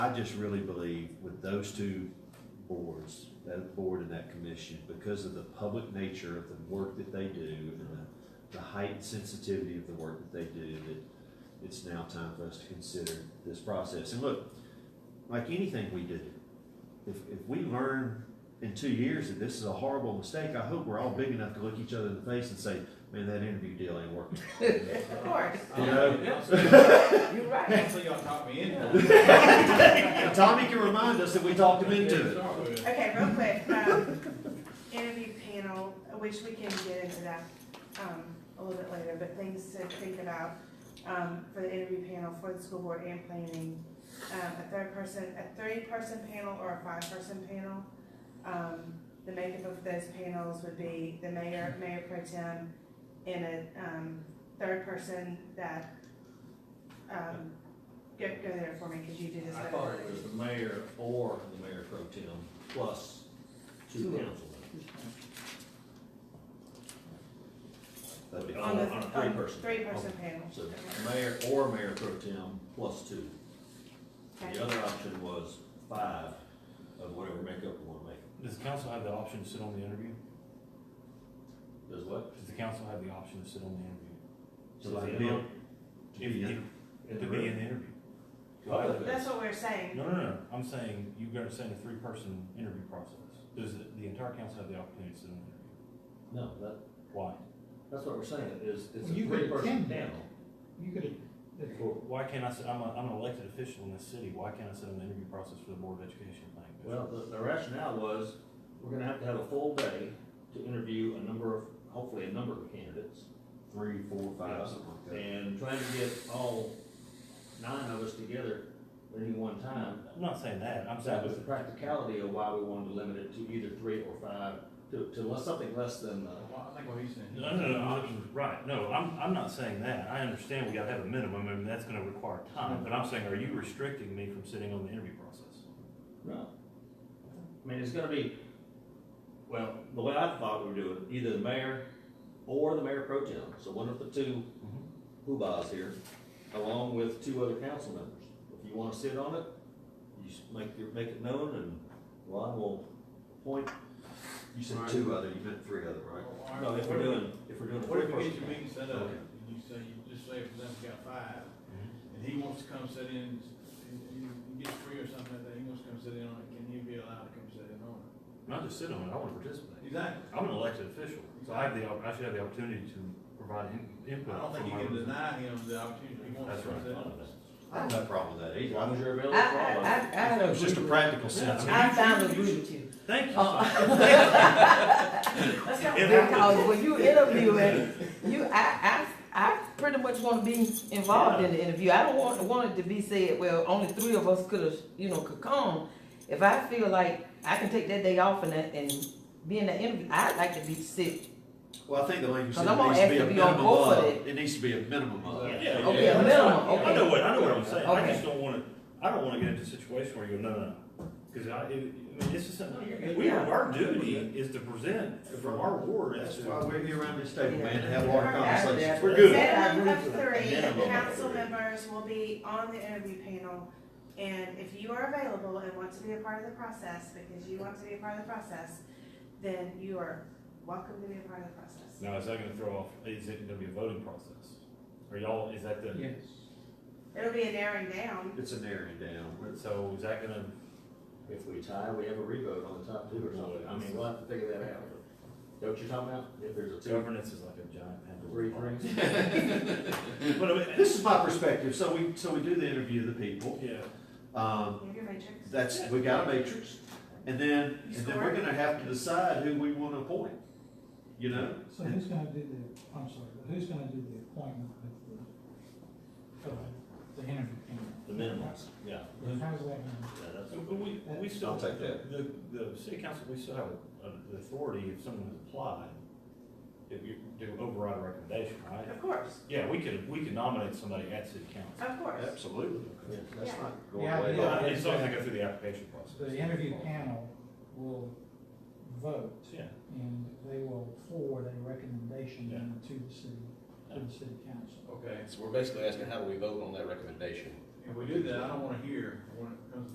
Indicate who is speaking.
Speaker 1: I just really believe with those two boards, that board and that commission, because of the public nature of the work that they do and the, the heightened sensitivity of the work that they do, that it's now time for us to consider this process. And look, like anything we do, if, if we learn in two years that this is a horrible mistake, I hope we're all big enough to look each other in the face and say, man, that interview deal ain't working.
Speaker 2: Of course,
Speaker 1: You know?
Speaker 2: you're right.
Speaker 3: Actually, y'all caught me in.
Speaker 1: And Tommy can remind us that we talked him into it.
Speaker 2: Okay, real quick, um, interview panel, which we can get into that, um, a little bit later, but things to think about, um, for the interview panel for the school board and planning. Um, a third person, a three-person panel or a five-person panel. Um, the makeup of those panels would be the mayor, mayor pro tem, and a, um, third person that, um, go, go there for me, cause you do this
Speaker 3: I
Speaker 2: better.
Speaker 3: thought it was
Speaker 1: The mayor or the mayor pro tem plus two council members. That'd be
Speaker 2: On
Speaker 1: on a
Speaker 2: the,
Speaker 1: on a
Speaker 2: on
Speaker 1: three-person.
Speaker 2: three-person panel.
Speaker 1: So mayor or mayor pro tem plus two.
Speaker 2: Okay.
Speaker 1: The other option was five of whatever makeup we wanna make.
Speaker 4: Does the council have the option to sit on the interview?
Speaker 1: Does what?
Speaker 4: Does the council have the option to sit on the
Speaker 1: So
Speaker 4: interview?
Speaker 1: like, Bill?
Speaker 4: If,
Speaker 1: Yeah.
Speaker 4: if,
Speaker 1: In the
Speaker 4: to be
Speaker 1: room.
Speaker 4: in the interview.
Speaker 2: That's what we're saying.
Speaker 4: No, no, no, I'm saying, you guys are saying a three-person interview process. Does the, the entire council have the opportunity to sit on the
Speaker 1: No,
Speaker 4: interview?
Speaker 1: that,
Speaker 4: Why?
Speaker 1: that's what we're saying, is, it's a
Speaker 5: You could
Speaker 1: three-person
Speaker 5: attend.
Speaker 1: panel.
Speaker 5: You could,
Speaker 4: Why can't I sit, I'm a, I'm an elected official in this city, why can't I sit on the interview process for the Board of Education thing?
Speaker 1: Well, the, the rationale was, we're gonna have to have a full day to interview a number of, hopefully a number of candidates. Three, four,
Speaker 6: five,
Speaker 1: something like that. And trying to get all nine of us together at any one time,
Speaker 4: I'm not saying that, I'm saying,
Speaker 1: that was the practicality of why we wanted to limit it to either three or five, to, to less, something less than, uh,
Speaker 3: Well, I think what he's saying.
Speaker 4: no, no, no, I'm- right, no, I'm, I'm not saying that. I understand we gotta have a minimum, and that's gonna require time, but I'm saying, are you restricting me from sitting on the interview process?
Speaker 1: no. I mean, it's gonna be, well, the way I thought we were doing, it, either the mayor or the mayor pro tem, so one of the two
Speaker 3: Mm-hmm.
Speaker 1: hoobahs here, along with two other council members. If you wanna sit on it, you s- make your, make it known, and Ron will appoint. You
Speaker 6: said two
Speaker 1: other, you meant three other,
Speaker 3: Well,
Speaker 1: No, if we're doing, if we're doing a
Speaker 3: What if you
Speaker 1: three-person
Speaker 3: get your
Speaker 1: panel.
Speaker 3: meeting set up, and you say, you just say, for example, you got five,
Speaker 1: Mm-hmm.
Speaker 3: and he wants to come sit in, he, he gets three or something like that, he wants to come sit in on it, can he be allowed to come sit in on it?
Speaker 4: Not just sit on it, I wanna participate.
Speaker 3: Exactly.
Speaker 4: I'm an elected official, so I have the, op- I should have the opportunity to provide in- input.
Speaker 3: I don't think
Speaker 4: from
Speaker 3: you
Speaker 4: my
Speaker 3: can
Speaker 4: representative.
Speaker 3: deny him the opportunity, if he wants
Speaker 4: That's
Speaker 3: to come
Speaker 4: right.
Speaker 3: sit on it.
Speaker 1: I have no problem with that either. As long as you're
Speaker 5: I,
Speaker 1: available. for all of
Speaker 5: I, I, I
Speaker 1: us.
Speaker 5: had a.
Speaker 1: It's just a practical sense.
Speaker 5: I found a group too.
Speaker 4: Thank you.
Speaker 5: Uh,
Speaker 2: Let's go.
Speaker 5: Because when you interviewing, you, I, I, I pretty much wanna be involved in the interview. I don't want, want it to be said, well, only three of us could've, you know, could come. If I feel like I can take that day off and, that- and be in the interview, I'd like to be sick.
Speaker 1: Well, I think the language
Speaker 5: Cause
Speaker 1: said
Speaker 5: I'm
Speaker 1: it
Speaker 5: gonna
Speaker 1: needs to
Speaker 5: ask
Speaker 1: be a
Speaker 5: to be on
Speaker 1: minimum
Speaker 5: both of
Speaker 1: of, it needs to be a minimum of.
Speaker 3: Yeah.
Speaker 4: Yeah,
Speaker 5: Okay,
Speaker 4: yeah.
Speaker 5: a minimum,
Speaker 4: I know
Speaker 5: okay.
Speaker 4: what, I know what I'm saying, I
Speaker 5: Okay.
Speaker 4: just don't wanna, I don't wanna get into a situation where you go, no, no, no. Cause I, it, I mean, this is something, we,
Speaker 5: Yeah.
Speaker 4: our duty is to present from our ward as
Speaker 1: That's
Speaker 4: to.
Speaker 1: why we're here around this table, man, to
Speaker 5: Yeah.
Speaker 1: have hard
Speaker 2: Yeah.
Speaker 1: conversations. We're
Speaker 5: Yeah.
Speaker 1: good.
Speaker 2: Minimum of three,
Speaker 1: Minimum of
Speaker 2: council
Speaker 1: three.
Speaker 2: members will be on the interview panel. And if you are available and want to be a part of the process, because you want to be a part of the process, then you are welcome to be a part of the process.
Speaker 4: Now, is that gonna throw off, is it gonna be a voting process? Are y'all, is that the,
Speaker 2: It'll be a narrowing down.
Speaker 1: It's a narrowing down.
Speaker 4: so is that gonna,
Speaker 1: If we tie, we have a revote on the top two or something. I mean, we'll have to figure that out. Know what you're talking about? If there's a two,
Speaker 4: governance is like a giant
Speaker 1: three,
Speaker 4: pendulum.
Speaker 1: three.
Speaker 4: But I mean,
Speaker 1: This is my perspective. So we, so we do the interview of the people.
Speaker 4: yeah,
Speaker 1: Um,
Speaker 2: You have your matrix.
Speaker 1: that's, we got a matrix. And then, and then we're gonna have to decide who we wanna appoint, you know?
Speaker 7: So who's gonna do the, I'm sorry, but who's gonna do the appointment with the, for the, the interview panel?
Speaker 1: The minimums, yeah.
Speaker 7: How's that gonna?
Speaker 1: Yeah, that's-
Speaker 4: But we, we still.
Speaker 1: I'll take that.
Speaker 4: The, the city council, we still have uh, the authority if someone has applied, if you do override a recommendation, right?
Speaker 2: Of course,
Speaker 4: Yeah, we could, we could nominate somebody at city council.
Speaker 2: of course.
Speaker 1: Absolutely. Yeah, That's
Speaker 2: Yeah.
Speaker 1: not going
Speaker 7: Yeah,
Speaker 1: away.
Speaker 7: yeah.
Speaker 4: Well, As long as they go through the application process.
Speaker 7: The interview panel will vote
Speaker 4: Yeah,
Speaker 7: and they will forward a recommendation then to the city, to the city council.
Speaker 3: Okay,
Speaker 6: So we're basically asking, how do we vote on that recommendation?
Speaker 3: if we do that, I don't wanna hear, when it comes